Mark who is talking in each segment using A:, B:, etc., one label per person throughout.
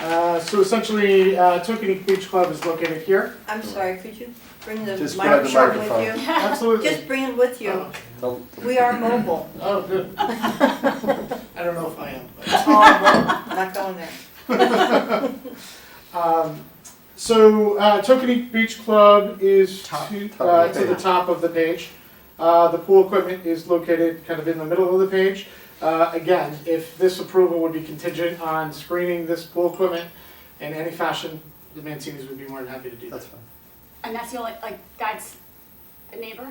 A: Uh, So essentially, uh, Tokenie Beach Club is located here.
B: I'm sorry, could you bring the
C: Just grab the
B: microphone
C: microphone.
B: with you?
A: Absolutely.
B: Just bring it with you.
A: Oh,
B: We are mobile.
A: Oh, good. I don't know if I am. but-
B: Oh, mobile. Not going there.
A: Um, So uh, Tokenie Beach Club is
C: Top-
A: to
C: top
A: uh,
C: of the
A: to the
C: page.
A: top of the page. Uh, The pool equipment is located kind of in the middle of the page. Uh, Again, if this approval would be contingent on screening this pool equipment in any fashion, the Mancinis would be more than happy to do that.
C: That's fine.
D: And that's the only, like, that's a neighbor?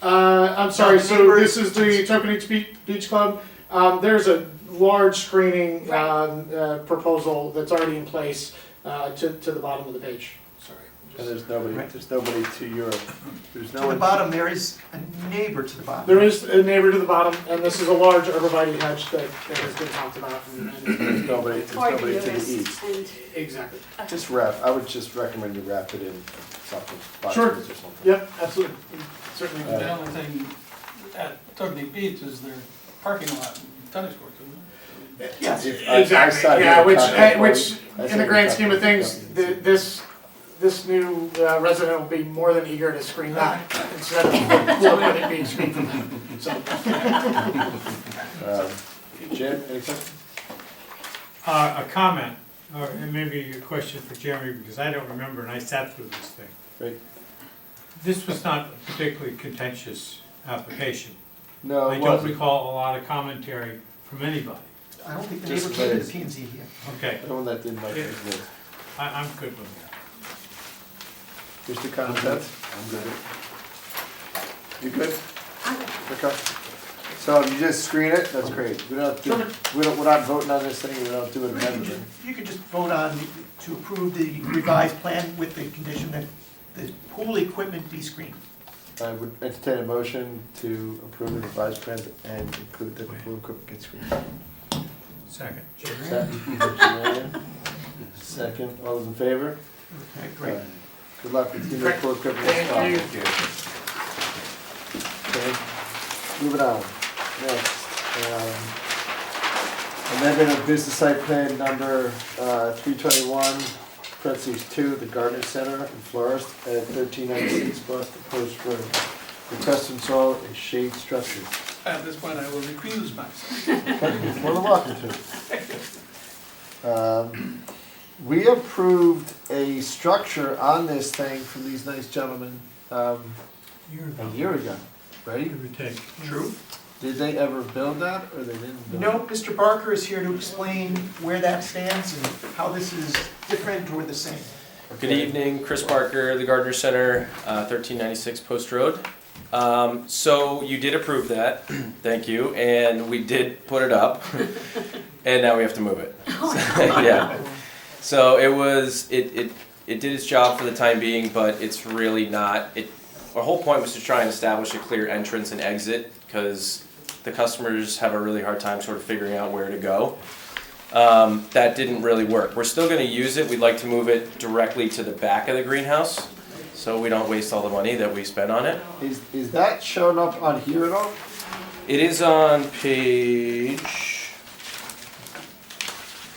A: Uh, I'm sorry,
E: the
A: so
E: neighbor-
A: this is the Tokenique Beach, Beach Club. Um, there's a large screening,
D: Right.
A: um, uh, proposal that's already in place, uh, to, to the bottom of the page, sorry.
C: And
A: just-
C: there's nobody,
E: Right.
C: there's nobody to your, there's no
E: To
C: one.
E: the bottom, there is a neighbor to the bottom.
A: There is a neighbor to the bottom, and this is a large arborvitae hedge that, that has been talked about. and- and-
C: There's nobody, there's
D: Or
C: nobody to
D: noticed,
C: the east.
D: And,
A: Exactly,
C: Just wrap, I would just recommend you wrap it in something,
A: Sure.
C: boxes or something.
A: yep, absolutely, certainly.
C: Uh,
F: The only thing at Tugny Beach is their parking lot and tennis courts, isn't it?
E: Yes.
C: If- I- I side
A: Exactly, yeah,
C: with the
A: which,
C: contract
A: eh, which,
C: party. I
A: in
C: side
A: the
C: with
A: grand
C: the
A: scheme of
C: contract
A: things,
C: party.
A: th- this, this new uh, resident will be more than eager to screen that instead of well, let it being screened from that. So,
C: Um, Jim, any questions?
G: Uh, a comment, or maybe a question for Jeremy, because I don't remember, and I sat through this thing.
C: Great.
G: This was not a particularly contentious application.
C: No,
G: I
C: it
G: don't
C: wasn't.
G: recall a lot of commentary from anybody.
E: I don't think the
C: Just
E: neighbor came to
C: raised.
E: the P and Z here.
G: Okay,
C: The one that didn't like his voice.
G: I, I'm good with that.
C: Mr. Constance? I'm good. You good? Okay. So you just screen it, that's great. We don't, do- we don't, we're not voting on this thing, we don't do an amendment.
E: You could just vote on to approve the revised plan with the condition that the pool equipment be screened.
C: I would entertain a motion to approve the revised plan and include the pool equipment gets screened.
G: Second.
C: Second. Second, all those in favor?
E: Okay, great.
C: Good luck with your new pool equipment.
A: Thank you.
C: Okay, moving on, next. um, Amendment of business site plan number uh, three twenty-one, parentheses two, the garden center and florist at thirteen ninety-six Boston Post Road. Request to install a shade structure.
F: At this point, I will recuse myself.
C: More than welcome to. Um, We approved a structure on this thing from these nice gentlemen um,
G: You're
C: a year ago, right?
G: Give or take.
E: True.
C: Did they ever build that or they didn't build?
E: No, Mr. Barker is here to explain where that stands and how this is different or the same.
H: Good evening, Chris Parker, the Gardner Center, uh, 1396 Post Road. Um, So you did approve that, thank you, and we did put it up, and now we have to move it. Yeah. So it was, it, it, it did its job for the time being, but it's really not, it, our whole point was to try and establish a clear entrance and exit, because the customers have a really hard time sort of figuring out where to go um, that didn't really work. We're still gonna use it, we'd like to move it directly to the back of the greenhouse, so we don't waste all the money that we spent on it.
C: Is, is that shown up on here at all?
H: It is on page,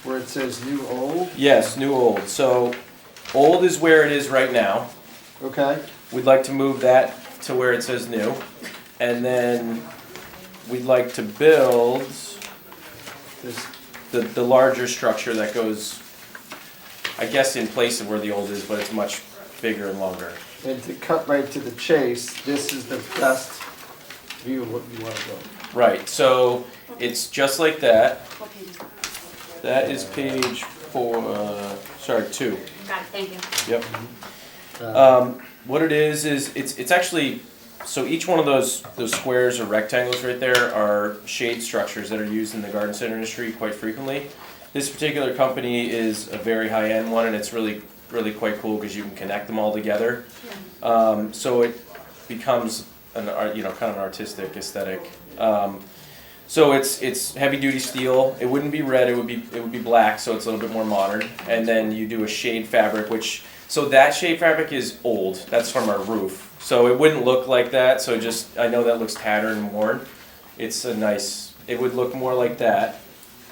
C: Where it says new old?
H: yes, new old, so old is where it is right now.
C: Okay,
H: We'd like to move that to where it says new, and then we'd like to build
C: this,
H: the, the larger structure that goes, I guess in place of where the old is, but it's much bigger and longer.
C: and to cut right to the chase, this is the best view of what you wanna go.
H: Right, so it's just like that.
D: what page is that?
H: That is page four, uh, sorry, two.
D: Got it, thank you.
H: Yep.
C: Uh,
H: Um, what it is is it's it's actually so each one of those those squares or rectangles right there are shade structures that are used in the garden center industry quite frequently. This particular company is a very high end one, and it's really really quite cool because you can connect them all together. Um, so it becomes an art, you know kind of an artistic aesthetic. Um, so it's it's heavy duty steel. It wouldn't be red. It would be it would be black. So it's a little bit more modern. And then you do a shade fabric, which so that shade fabric is old. That's from our roof. So it wouldn't look like that. So just I know that looks tattered and worn. It's a nice. It would look more like that.